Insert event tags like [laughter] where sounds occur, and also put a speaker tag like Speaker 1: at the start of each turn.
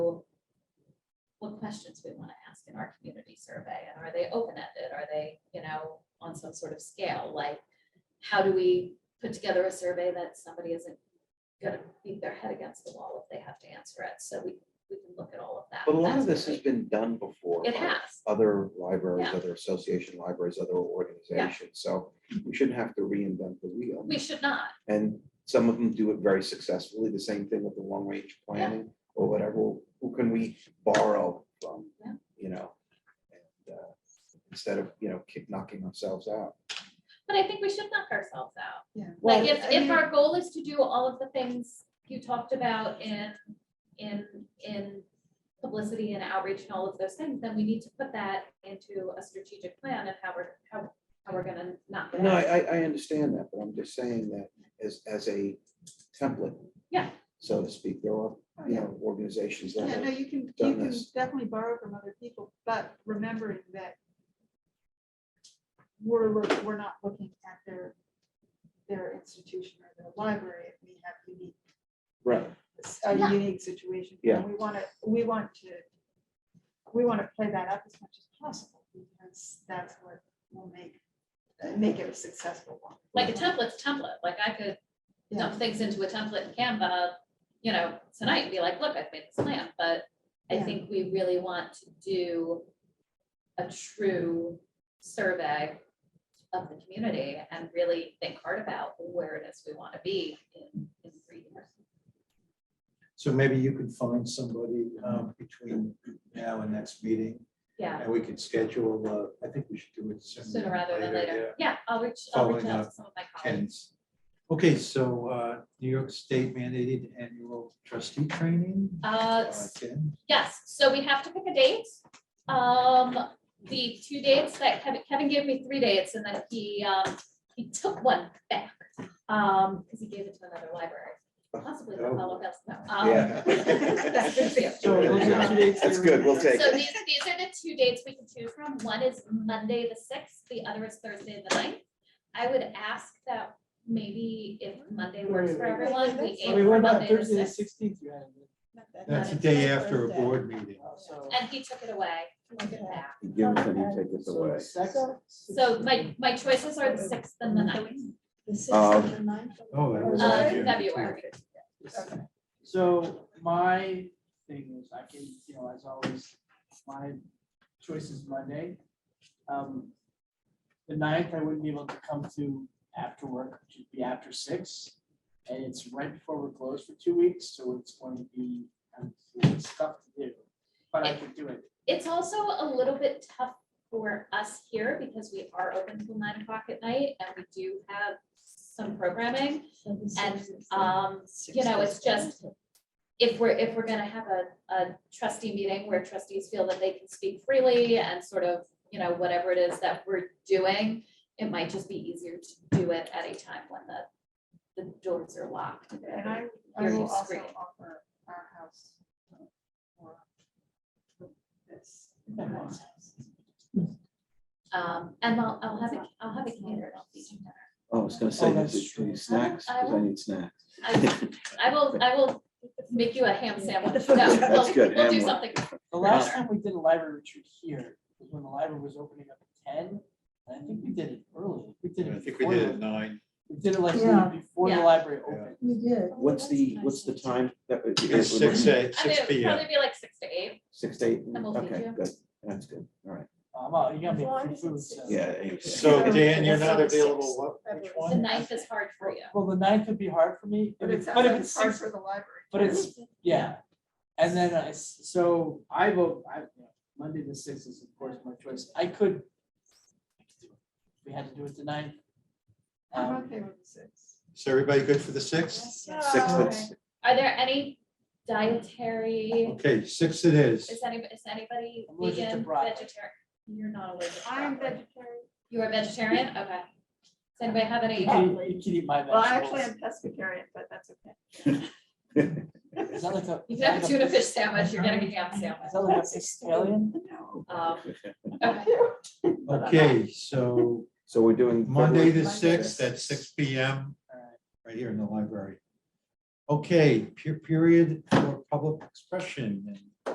Speaker 1: questions we want to ask in our community survey? And are they open-ended? Are they, you know, on some sort of scale? Like, how do we put together a survey that somebody isn't gonna beat their head against the wall if they have to answer it? So we, we can look at all of that.
Speaker 2: But a lot of
Speaker 1: That's
Speaker 2: this has
Speaker 1: really-
Speaker 2: been done before.
Speaker 1: It
Speaker 2: by
Speaker 1: has.
Speaker 2: Other libraries,
Speaker 1: Yeah.
Speaker 2: other association libraries, other organizations, so we shouldn't have to reinvent the wheel.
Speaker 1: We should not.
Speaker 2: And some of them do it very successfully, the same thing with the long range planning or whatever, who can we borrow from?
Speaker 1: Yeah.
Speaker 2: You know? and, uh, Instead of, you know, kick knocking ourselves out.
Speaker 1: But I think we should knock ourselves out.
Speaker 3: Yeah.
Speaker 1: Like
Speaker 2: Well,
Speaker 1: if,
Speaker 3: I
Speaker 1: if
Speaker 3: mean-
Speaker 1: our goal is to do all of the things you talked about in, in, in publicity and outreach and all of those things, then we need to put that into a strategic plan of how we're, how, how we're gonna knock it
Speaker 2: No, I,
Speaker 1: out.
Speaker 2: I, I understand that, but I'm just saying that as, as a template.
Speaker 1: Yeah.
Speaker 2: So to speak, there are,
Speaker 3: Oh,
Speaker 2: you
Speaker 3: yeah.
Speaker 2: know, organizations that
Speaker 3: Yeah,
Speaker 2: have
Speaker 3: no, you can, you
Speaker 2: done
Speaker 3: can
Speaker 2: this.
Speaker 3: definitely borrow from other people, but remembering that we're, look- we're not looking at their, their institution or their library, if we have unique,
Speaker 2: Right,
Speaker 1: Yeah.
Speaker 3: a unique situation. and
Speaker 2: Yeah.
Speaker 3: We want to, we want to, we want to play that up as much as possible, because that's what will make, make it a successful one.
Speaker 1: Like a template's template, like I could
Speaker 3: Yeah,
Speaker 1: dump things into a template in Canva, you know, tonight and be like, look, I've made this plan, but I
Speaker 3: Yeah.
Speaker 1: think we really want to do a true survey of the community and really think hard about where it is we want to be in, in three years.
Speaker 4: So maybe you could find somebody um, between now and next meeting,
Speaker 1: Yeah,
Speaker 4: and we could schedule, uh, I think we should do it sooner.
Speaker 1: sooner rather than later. Yeah, I'll reach, I'll reach
Speaker 4: Following
Speaker 1: out to
Speaker 4: up
Speaker 1: some of my
Speaker 4: yeah,
Speaker 1: colleagues.
Speaker 4: Ken's. Okay, so uh, New York State mandated annual trustee training.
Speaker 1: Uh,
Speaker 4: Uh, Ken,
Speaker 1: Yes, so we have to pick a date. Um, the two dates that Kevin, Kevin gave me three dates and then he, um, he took one back. Um, because he gave it to another library, possibly the
Speaker 4: Oh.
Speaker 1: Palo Alto. no, um, [laughs]
Speaker 2: yeah.
Speaker 4: So those are two dates
Speaker 2: That's
Speaker 4: that
Speaker 2: good,
Speaker 4: were-
Speaker 2: we'll take
Speaker 1: So
Speaker 2: it.
Speaker 1: these, these are the two dates we can choose from. One is Monday, the sixth, the other is Thursday, the 9th. I would ask that maybe if Monday works for
Speaker 5: Wait, wait, wait.
Speaker 1: everyone, we
Speaker 5: I
Speaker 1: aim
Speaker 5: mean, what
Speaker 1: for
Speaker 5: about
Speaker 1: Monday, the
Speaker 5: Thursday the
Speaker 1: sixth.
Speaker 5: sixteenth, you had? it.
Speaker 4: That's the day after a board meeting.
Speaker 5: So-
Speaker 1: And he took it away, he took it back.
Speaker 2: You Give it to me, take this
Speaker 5: so
Speaker 2: away.
Speaker 5: second-
Speaker 1: So my, my choices are the sixth and the 9th.
Speaker 2: Um,
Speaker 4: Oh, that was.
Speaker 1: Uh,
Speaker 4: on June.
Speaker 1: February.
Speaker 5: So my thing is, I can, you know, as always, my choice is Monday. Um, The ninth, I wouldn't be able to come to after work, which would be after six. And it's right before we're closed for two weeks, so it's going to be um, stuff to do, but I could do it.
Speaker 1: It's also a little bit tough for us here because we are open till nine o'clock at night and we do have some programming. And, um, you know, it's just, if we're, if we're gonna have a, a trustee meeting where trustees feel that they can speak freely and sort of, you know, whatever it is that we're doing, it might just be easier to do it at a time when the, the doors are locked.
Speaker 3: And I, I
Speaker 1: Hear you
Speaker 3: will also
Speaker 1: scream.
Speaker 3: offer our house. uh, for This. the house.
Speaker 1: Um, and I'll, I'll have it, I'll have it
Speaker 6: [laughs]
Speaker 1: catered, I'll feed you dinner.
Speaker 6: Oh, I was gonna say,
Speaker 5: Oh,
Speaker 6: does
Speaker 5: that's
Speaker 6: it- do you
Speaker 5: true.
Speaker 6: snacks,
Speaker 1: I
Speaker 6: because I need snacks. [laughs]
Speaker 1: I I will, I will make you a ham sandwich. No,
Speaker 6: That's
Speaker 1: we'll-
Speaker 6: good,
Speaker 1: We'll do
Speaker 6: ham one.
Speaker 1: something.
Speaker 5: The last time we did a library retreat here was when the library was opening up at ten. And I think we did it early. We did
Speaker 4: I
Speaker 5: it
Speaker 4: think we
Speaker 5: before.
Speaker 4: did it at
Speaker 5: the-
Speaker 4: nine.
Speaker 5: We did it like the
Speaker 3: Yeah.
Speaker 5: week before the
Speaker 1: Yeah.
Speaker 5: library
Speaker 4: Yeah.
Speaker 5: opened.
Speaker 3: We did.
Speaker 6: What's the, what's the time? that would-
Speaker 4: It's
Speaker 6: it would-
Speaker 4: six, eight,
Speaker 1: I mean,
Speaker 4: six
Speaker 1: it'd
Speaker 4: P M.
Speaker 1: probably be like six to eight.
Speaker 6: Six to eight,
Speaker 1: And we'll feed
Speaker 6: okay,
Speaker 1: you.
Speaker 6: good, that's good, all right,
Speaker 5: Um, oh, you got me
Speaker 3: As long as
Speaker 5: free
Speaker 3: it's
Speaker 5: food,
Speaker 3: six.
Speaker 5: so.
Speaker 6: yeah. eight, yeah.
Speaker 4: So Dan, you're not
Speaker 1: December sixth.
Speaker 4: available, what, which
Speaker 1: The
Speaker 4: one?
Speaker 1: ninth is hard for you.
Speaker 5: Well, the ninth would be hard for me,
Speaker 3: But it sounds
Speaker 5: but if
Speaker 3: like
Speaker 5: it's
Speaker 3: it's hard
Speaker 5: six,
Speaker 3: for the library.
Speaker 5: but it's, yeah. And then I, s- so I vote, I, you know, Monday the sixth is of course my choice. I could. I could do it. We had to do it the ninth.
Speaker 3: I'm
Speaker 5: Um,
Speaker 3: okay with the six.
Speaker 4: Is everybody good for the sixth?
Speaker 6: Six,
Speaker 3: Oh,
Speaker 6: that's-
Speaker 1: Are there any dietary,
Speaker 4: Okay, six it is.
Speaker 1: is any, is anybody
Speaker 5: I'm allergic to
Speaker 1: vegan,
Speaker 5: broccoli.
Speaker 1: vegetarian? You're not allergic to
Speaker 3: I'm
Speaker 1: broccoli.
Speaker 3: vegetarian.
Speaker 1: You are vegetarian? Okay. Does anybody have
Speaker 5: [laughs]
Speaker 1: any?
Speaker 5: You can eat- you can eat my
Speaker 3: Well, actually,
Speaker 5: vegetables.
Speaker 3: I'm pescatarian, but that's okay.
Speaker 5: [laughs]
Speaker 3: [laughs]
Speaker 5: Is that like a?
Speaker 1: You can have
Speaker 5: is
Speaker 1: a
Speaker 5: that like
Speaker 1: tuna fish sandwich, you're getting a ham sandwich.
Speaker 5: Is that like a Sicilian?
Speaker 3: No.
Speaker 6: [laughs]
Speaker 1: Um, okay.
Speaker 4: Okay, so
Speaker 6: So we're doing.
Speaker 4: Monday
Speaker 6: February
Speaker 4: the sixth at six P M, right here in the library. Okay, pe- period for public expression and